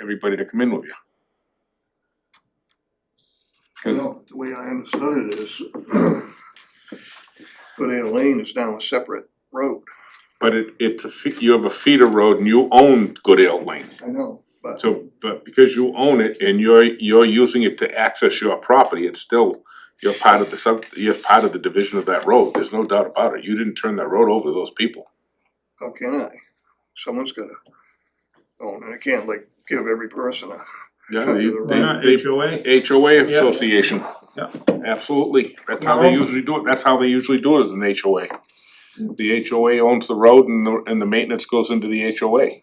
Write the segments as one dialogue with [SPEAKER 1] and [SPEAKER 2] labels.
[SPEAKER 1] everybody to come in with you. Cause,
[SPEAKER 2] No, the way I understood it is putting a lane is now a separate road.
[SPEAKER 1] but it it's a, fe- you have a feeder road and you own Goodale Lane.
[SPEAKER 2] I know, but
[SPEAKER 1] So, but because you own it and you're you're using it to access your property, it's still, you're part of the sub, you're part of the division of that road, there's no doubt about it, you didn't turn that road over to those people.
[SPEAKER 2] how can I? Someone's gotta own it. I can't like give every person a,
[SPEAKER 1] Yeah,
[SPEAKER 2] Turn
[SPEAKER 1] they
[SPEAKER 2] to the
[SPEAKER 1] they-
[SPEAKER 2] right.
[SPEAKER 1] they-
[SPEAKER 3] HOA.
[SPEAKER 1] HOA
[SPEAKER 3] Yeah.
[SPEAKER 1] association.
[SPEAKER 3] Yeah.
[SPEAKER 1] Absolutely, that's how they
[SPEAKER 3] Yeah.
[SPEAKER 1] usually do it, that's how they usually do it as an HOA. The HOA owns the road and the and the maintenance goes into the HOA.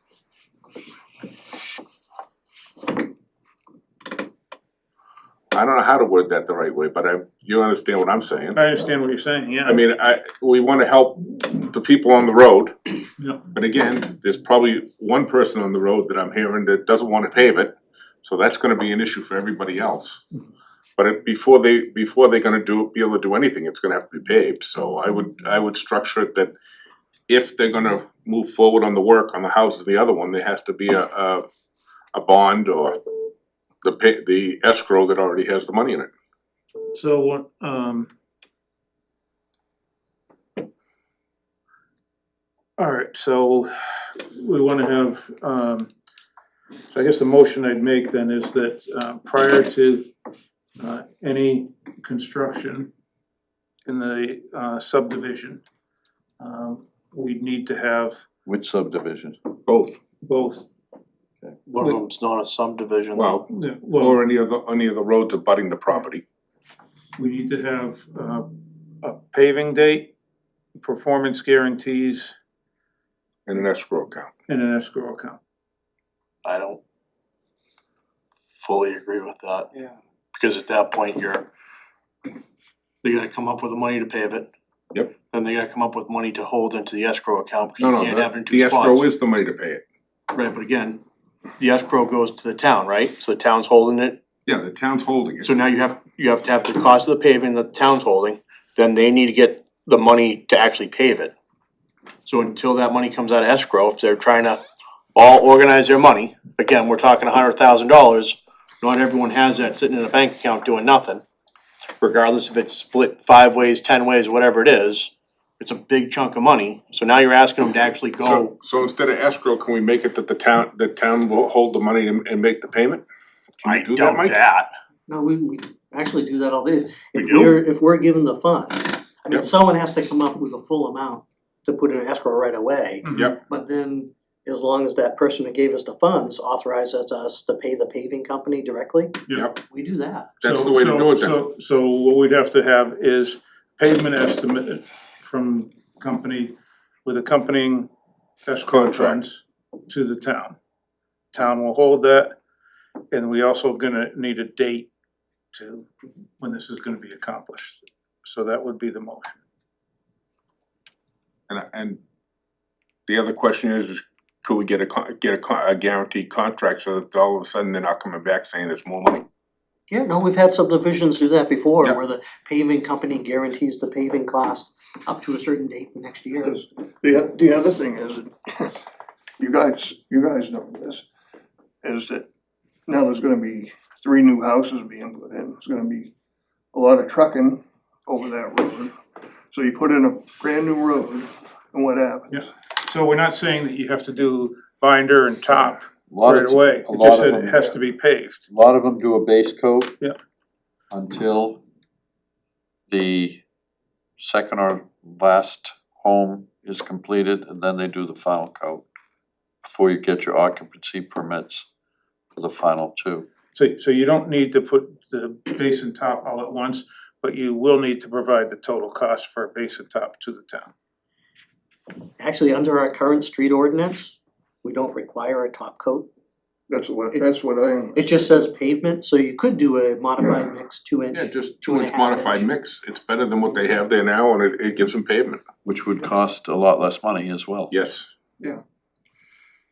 [SPEAKER 1] I don't know how to word that the right way, but I, you understand what I'm saying.
[SPEAKER 3] I understand what you're saying, yeah.
[SPEAKER 1] I mean, I, we wanna help the people on the road.
[SPEAKER 3] Yeah.
[SPEAKER 1] But again, there's probably one person on the road that I'm hearing that doesn't wanna pave it, so that's gonna be an issue for everybody else. But it, before they, before they're gonna do, be able to do anything, it's gonna have to be paved, so I would, I would structure it that if they're gonna move forward on the work on the house of the other one, there has to be a, a, a bond or the pa- the escrow that already has the money in it.
[SPEAKER 3] So what, um. Alright, so we wanna have, um, so I guess the motion I'd make then is that, uh, prior to, uh, any construction in the, uh, subdivision, um, we'd need to have
[SPEAKER 4] Which subdivision?
[SPEAKER 1] Both.
[SPEAKER 3] both,
[SPEAKER 5] One of them's not a subdivision.
[SPEAKER 1] Well,
[SPEAKER 3] yeah, well,
[SPEAKER 1] Or any of the, any of the roads abutting the property.
[SPEAKER 3] we need to have, uh, a paving date, performance guarantees,
[SPEAKER 1] in an escrow account.
[SPEAKER 3] and an escrow account.
[SPEAKER 5] I don't fully agree with that. Yeah. Because at that point, you're, they gotta come up with the money to pave it.
[SPEAKER 1] Yep.
[SPEAKER 5] Then they gotta come up with money to hold into the escrow
[SPEAKER 1] No,
[SPEAKER 5] account, because you
[SPEAKER 1] no,
[SPEAKER 5] can't have it
[SPEAKER 1] the
[SPEAKER 5] in two
[SPEAKER 1] the
[SPEAKER 5] spots.
[SPEAKER 1] escrow is the money to pay it.
[SPEAKER 5] Right, but again, the escrow goes to the town, right? So the town's holding it,
[SPEAKER 1] Yeah, the town's holding it.
[SPEAKER 5] so now you have, you have to have the cost of the paving that the town's holding, then they need to get the money to actually pave it. So until that money comes out of escrow, if they're trying to all organize their money, again, we're talking a hundred thousand dollars, not everyone has that sitting in a bank account doing nothing. Regardless if it's split five ways, ten ways, whatever it is, it's a big chunk of money, so now you're asking them to actually
[SPEAKER 1] So,
[SPEAKER 5] go,
[SPEAKER 1] so instead of escrow, can we make it that the town, the town will hold the money and, and make the payment? Can
[SPEAKER 5] I
[SPEAKER 1] you do that,
[SPEAKER 5] doubt
[SPEAKER 1] Mike?
[SPEAKER 5] that.
[SPEAKER 6] No, we, we actually do that all day.
[SPEAKER 5] We
[SPEAKER 6] If
[SPEAKER 5] do?
[SPEAKER 6] we're, if we're given the funds, I
[SPEAKER 1] Yep.
[SPEAKER 6] mean, someone has to come up with a full amount to put in escrow right away.
[SPEAKER 3] Mm-hmm.
[SPEAKER 1] Yep.
[SPEAKER 6] But then, as long as that person who gave us the funds authorizes us to pay the paving company directly,
[SPEAKER 1] Yep,
[SPEAKER 6] we do that.
[SPEAKER 1] that's
[SPEAKER 3] So-
[SPEAKER 1] the way to
[SPEAKER 3] so-
[SPEAKER 1] do it then.
[SPEAKER 3] So, so what we'd have to have is pavement estimate uh, from company with accompanying escrow
[SPEAKER 1] Contract.
[SPEAKER 3] funds to the town. Town will hold that, and we also gonna need a date to when this is gonna be accomplished. So that would be the motion.
[SPEAKER 1] And, and the other question is, could we get a, con- get a, con- a guaranteed contract so that all of a sudden they're not coming back saying it's more money?
[SPEAKER 6] Yeah, no, we've had subdivisions do that before,
[SPEAKER 1] Yeah.
[SPEAKER 6] where the paving company guarantees the paving cost up to a certain date the next year.
[SPEAKER 2] the, the other thing is, you guys, you guys know this, is that now there's gonna be three new houses being put in, there's gonna be a lot of trucking over that road. So you put in a brand new road, and what happens?
[SPEAKER 3] Yeah. So we're not saying that you have to do binder and top
[SPEAKER 4] Lot
[SPEAKER 3] right
[SPEAKER 4] of,
[SPEAKER 3] away,
[SPEAKER 4] a
[SPEAKER 3] it just
[SPEAKER 4] lot
[SPEAKER 3] said
[SPEAKER 4] of
[SPEAKER 3] it
[SPEAKER 4] them,
[SPEAKER 3] has to be paved.
[SPEAKER 4] a lot of them do a base coat.
[SPEAKER 3] Yeah.
[SPEAKER 4] Until the second or last home is completed, and then they do the final coat. Before you get your occupancy permits for the final two.
[SPEAKER 3] So, so you don't need to put the base and top all at once, but you will need to provide the total cost for base and top to the town.
[SPEAKER 6] Actually, under our current street ordinance, we don't require a top coat.
[SPEAKER 2] That's what, that's what I am.
[SPEAKER 6] It just says pavement, so you could do a modified mix two inch.
[SPEAKER 1] Yeah, just
[SPEAKER 6] two
[SPEAKER 1] two
[SPEAKER 6] and
[SPEAKER 1] inch
[SPEAKER 6] a half
[SPEAKER 1] modified
[SPEAKER 6] inch.
[SPEAKER 1] mix, it's better than what they have there now and it, it gives them pavement,
[SPEAKER 4] Which would cost a lot less money as well.
[SPEAKER 1] yes.
[SPEAKER 2] Yeah.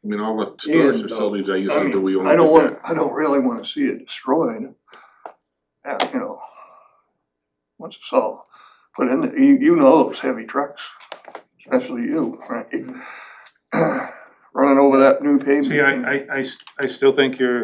[SPEAKER 1] I mean, all the storage
[SPEAKER 2] And, uh,
[SPEAKER 1] facilities I used
[SPEAKER 2] I
[SPEAKER 1] to do, we
[SPEAKER 2] mean,
[SPEAKER 1] only
[SPEAKER 2] I
[SPEAKER 1] did
[SPEAKER 2] don't
[SPEAKER 1] that.
[SPEAKER 2] want, I don't really wanna see it destroyed. Uh, you know. Once it's all put in, there, you, you know those heavy trucks, especially you, right? running over that new pavement.
[SPEAKER 3] See, I, I, I s- I still think you're